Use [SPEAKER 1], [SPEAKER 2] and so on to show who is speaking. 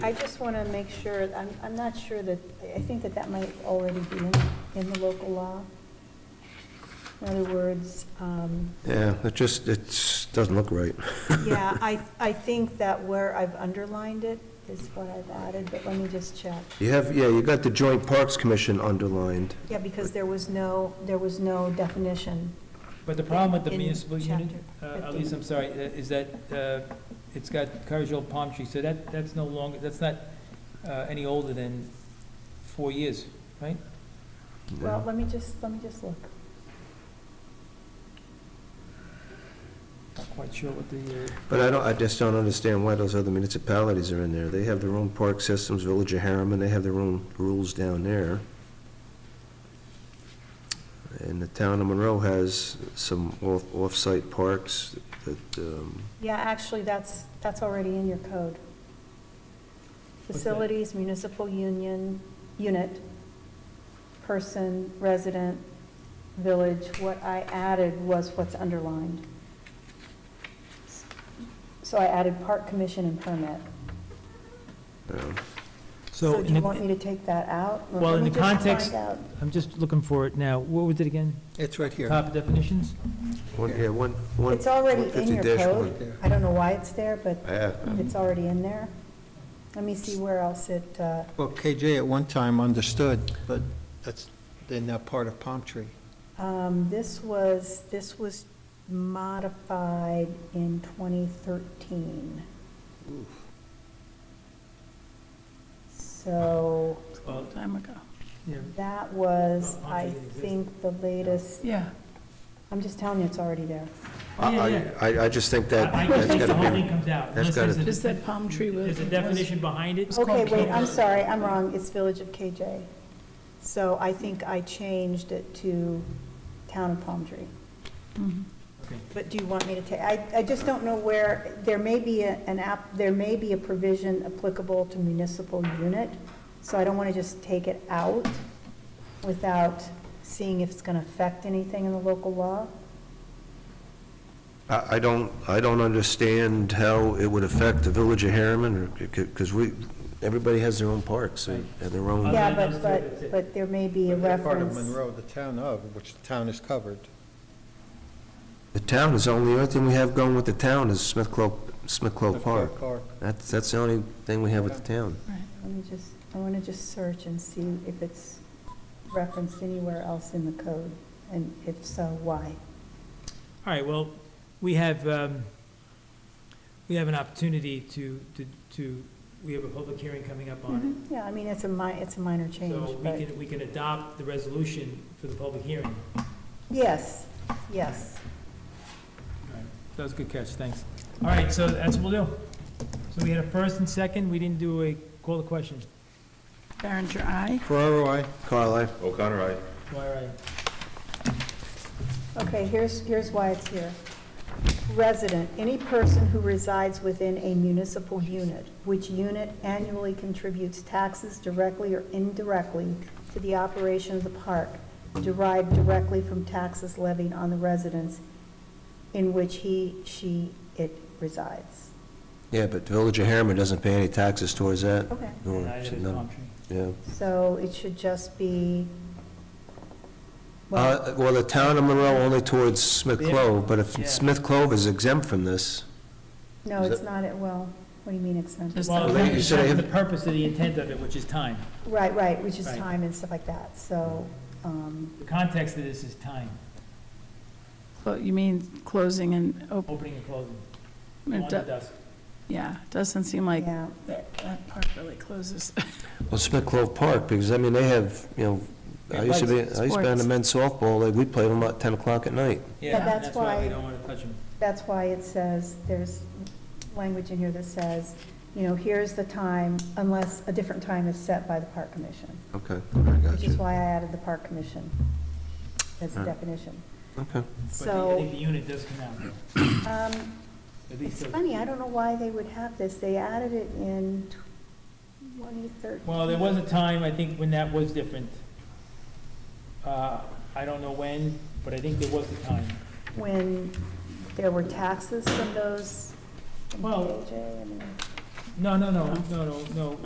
[SPEAKER 1] I just want to make sure, I'm, I'm not sure that, I think that that might already be in, in the local law. In other words, um,
[SPEAKER 2] Yeah, it just, it's, doesn't look right.
[SPEAKER 1] yeah, I, I think that where I've underlined it is what I've added, but let me just check.
[SPEAKER 2] You have, yeah, you got the Joint Parks Commission underlined.
[SPEAKER 1] Yeah, because there was no, there was no definition.
[SPEAKER 3] But the problem with the
[SPEAKER 1] In
[SPEAKER 3] municipal unit, uh,
[SPEAKER 1] chapter
[SPEAKER 3] at least
[SPEAKER 1] 15.
[SPEAKER 3] I'm sorry, uh, is that uh, it's got Cargill palm trees, so that, that's no longer, that's not uh, any older than four years.
[SPEAKER 1] Well, let me just, let me just look.
[SPEAKER 3] Not quite sure what the, uh,
[SPEAKER 2] But I don't, I just don't understand why those other municipalities are in there. They have their own park systems, Village of Harriman, they have their own rules down there. And the town of Monroe has some off, off-site parks that, um,
[SPEAKER 1] Yeah, actually, that's, that's already in your code.
[SPEAKER 3] that?
[SPEAKER 1] Facilities, municipal union, unit, person, resident, village, what I added was what's underlined. So I added park commission and permit.
[SPEAKER 2] um,
[SPEAKER 1] So do you want me to take that out? Let
[SPEAKER 3] well, in
[SPEAKER 1] me
[SPEAKER 3] the
[SPEAKER 1] just find
[SPEAKER 3] context-
[SPEAKER 1] out.
[SPEAKER 3] I'm just looking for it now. What was it again?
[SPEAKER 4] It's right here.
[SPEAKER 3] Top definitions?
[SPEAKER 2] one, yeah, one, one.
[SPEAKER 1] It's already in your
[SPEAKER 2] 150-1.
[SPEAKER 1] code. I don't know why it's there, but
[SPEAKER 2] Yeah,
[SPEAKER 1] it's already in there. Let me see where else it, uh,
[SPEAKER 4] Well, KJ at one time understood, but that's, they're now part of Palm Tree.
[SPEAKER 1] Um, This was, this was modified in 2013. So
[SPEAKER 3] Well,
[SPEAKER 5] time ago.
[SPEAKER 3] yeah.
[SPEAKER 1] that was,
[SPEAKER 3] Well,
[SPEAKER 1] I
[SPEAKER 3] it exists.
[SPEAKER 1] think, the latest,
[SPEAKER 5] Yeah.
[SPEAKER 1] I'm just telling you, it's already there.
[SPEAKER 2] I,
[SPEAKER 3] Yeah,
[SPEAKER 2] I-
[SPEAKER 3] yeah.
[SPEAKER 2] I, I just think that,
[SPEAKER 3] I I
[SPEAKER 2] that's
[SPEAKER 3] think the whole
[SPEAKER 2] gotta
[SPEAKER 3] thing
[SPEAKER 2] be,
[SPEAKER 3] comes out.
[SPEAKER 2] that's
[SPEAKER 3] unless there's
[SPEAKER 2] gotta-
[SPEAKER 3] a-
[SPEAKER 5] Is that palm tree was?
[SPEAKER 3] There's a definition behind it.
[SPEAKER 1] Okay, wait, I'm sorry, I'm wrong, it's Village of KJ. So I think I changed it to Town of Palm Tree.
[SPEAKER 5] Mhm.
[SPEAKER 3] Okay.
[SPEAKER 1] But do you want me to take, I, I just don't know where, there may be a- an app, there may be a provision applicable to municipal unit, so I don't want to just take it out without seeing if it's going to affect anything in the local law.
[SPEAKER 2] I, I don't, I don't understand how it would affect the Village of Harriman, because we, everybody has their own parks and and their own.
[SPEAKER 1] Yeah,
[SPEAKER 3] than
[SPEAKER 1] but,
[SPEAKER 3] those two, that's
[SPEAKER 1] but,
[SPEAKER 3] it.
[SPEAKER 1] but there may be a
[SPEAKER 4] They're Part of
[SPEAKER 1] reference.
[SPEAKER 4] Monroe, the town of, which the town is covered.
[SPEAKER 2] The town is the only, other thing we have going with the town is Smith Clo, Smith Clo Park.
[SPEAKER 4] Park.
[SPEAKER 2] That's, that's the only thing we have with the town.
[SPEAKER 1] Let me just, I want to just search and see if it's referenced anywhere else in the code, and if so, why?
[SPEAKER 3] All right, well, we have, um, we have an opportunity to, to, to, we have a public hearing coming up on it.
[SPEAKER 1] Yeah, I mean, it's a mi, it's a minor change,
[SPEAKER 3] So we
[SPEAKER 1] but,
[SPEAKER 3] can, we can adopt the resolution for the public hearing.
[SPEAKER 1] yes, yes.
[SPEAKER 3] That was a good catch, thanks. All right, so that's what we'll do. So we had a first and second, we didn't do a, call the question.
[SPEAKER 5] Barringer, aye.
[SPEAKER 4] Ferraro, I,
[SPEAKER 2] Carl, I,
[SPEAKER 6] O'Connor, aye.
[SPEAKER 3] Why, right?
[SPEAKER 1] Okay, here's, here's why it's here. Resident, any person who resides within a municipal unit, which unit annually contributes taxes directly or indirectly to the operation of the park, derived directly from taxes levied on the residence in which he, she, it resides.
[SPEAKER 2] yeah, but the Village of Harriman doesn't pay any taxes towards that.
[SPEAKER 1] Okay.
[SPEAKER 2] nor
[SPEAKER 3] Neither
[SPEAKER 2] should
[SPEAKER 3] is
[SPEAKER 2] none.
[SPEAKER 3] Palm Tree.
[SPEAKER 2] Yeah.
[SPEAKER 1] So it should just be, well,
[SPEAKER 2] Uh, well, the town of Monroe only towards Smith
[SPEAKER 3] Yeah.
[SPEAKER 2] Clove, but if
[SPEAKER 3] Yeah.
[SPEAKER 2] Smith Clove is exempt from this,
[SPEAKER 1] no,
[SPEAKER 2] is
[SPEAKER 1] it's
[SPEAKER 2] it-
[SPEAKER 1] not, at well, what do you mean exempt?
[SPEAKER 5] Just-
[SPEAKER 3] Well,
[SPEAKER 5] Well,
[SPEAKER 2] they- you
[SPEAKER 3] that's
[SPEAKER 2] said I have-
[SPEAKER 3] the purpose of the intent of it, which is time.
[SPEAKER 1] Right, right, which is
[SPEAKER 3] Right.
[SPEAKER 1] time and stuff like that, so, um,
[SPEAKER 3] The context of this is time,
[SPEAKER 5] Well, you mean closing and open,
[SPEAKER 3] opening and closing, Oh,
[SPEAKER 5] it
[SPEAKER 3] on to
[SPEAKER 5] do-
[SPEAKER 3] dusk.
[SPEAKER 5] yeah, doesn't seem like
[SPEAKER 1] yeah.
[SPEAKER 5] that that part really closes.
[SPEAKER 2] well, Smith Clove Park, because, I mean, they have, you know, I used to be, I used to be on the
[SPEAKER 5] Sports.
[SPEAKER 2] men's softball, like, we played them at ten o'clock at night.
[SPEAKER 3] Yeah, and
[SPEAKER 1] that's
[SPEAKER 3] that's why
[SPEAKER 1] why-
[SPEAKER 3] we don't want to touch them.
[SPEAKER 1] That's why it says, there's language in here that says, you know, here's the time, unless a different time is set by the park commission,
[SPEAKER 2] Okay, I got
[SPEAKER 1] which is
[SPEAKER 2] you.
[SPEAKER 1] why I added the park commission as a
[SPEAKER 2] Alright.
[SPEAKER 1] definition.
[SPEAKER 2] Okay.
[SPEAKER 3] But the- I
[SPEAKER 1] So,
[SPEAKER 3] think the unit does come out,
[SPEAKER 1] um,
[SPEAKER 3] at least.
[SPEAKER 1] it's
[SPEAKER 3] those-
[SPEAKER 1] funny, I don't know why they would have this, they added it in 2013.
[SPEAKER 3] Well, there was a time, I think, when that was different. Uh, I don't know when, but I think there was a time.
[SPEAKER 1] When there were taxes from those, from
[SPEAKER 3] Well-
[SPEAKER 1] KJ, I mean,
[SPEAKER 3] No, no, no, no, no, no.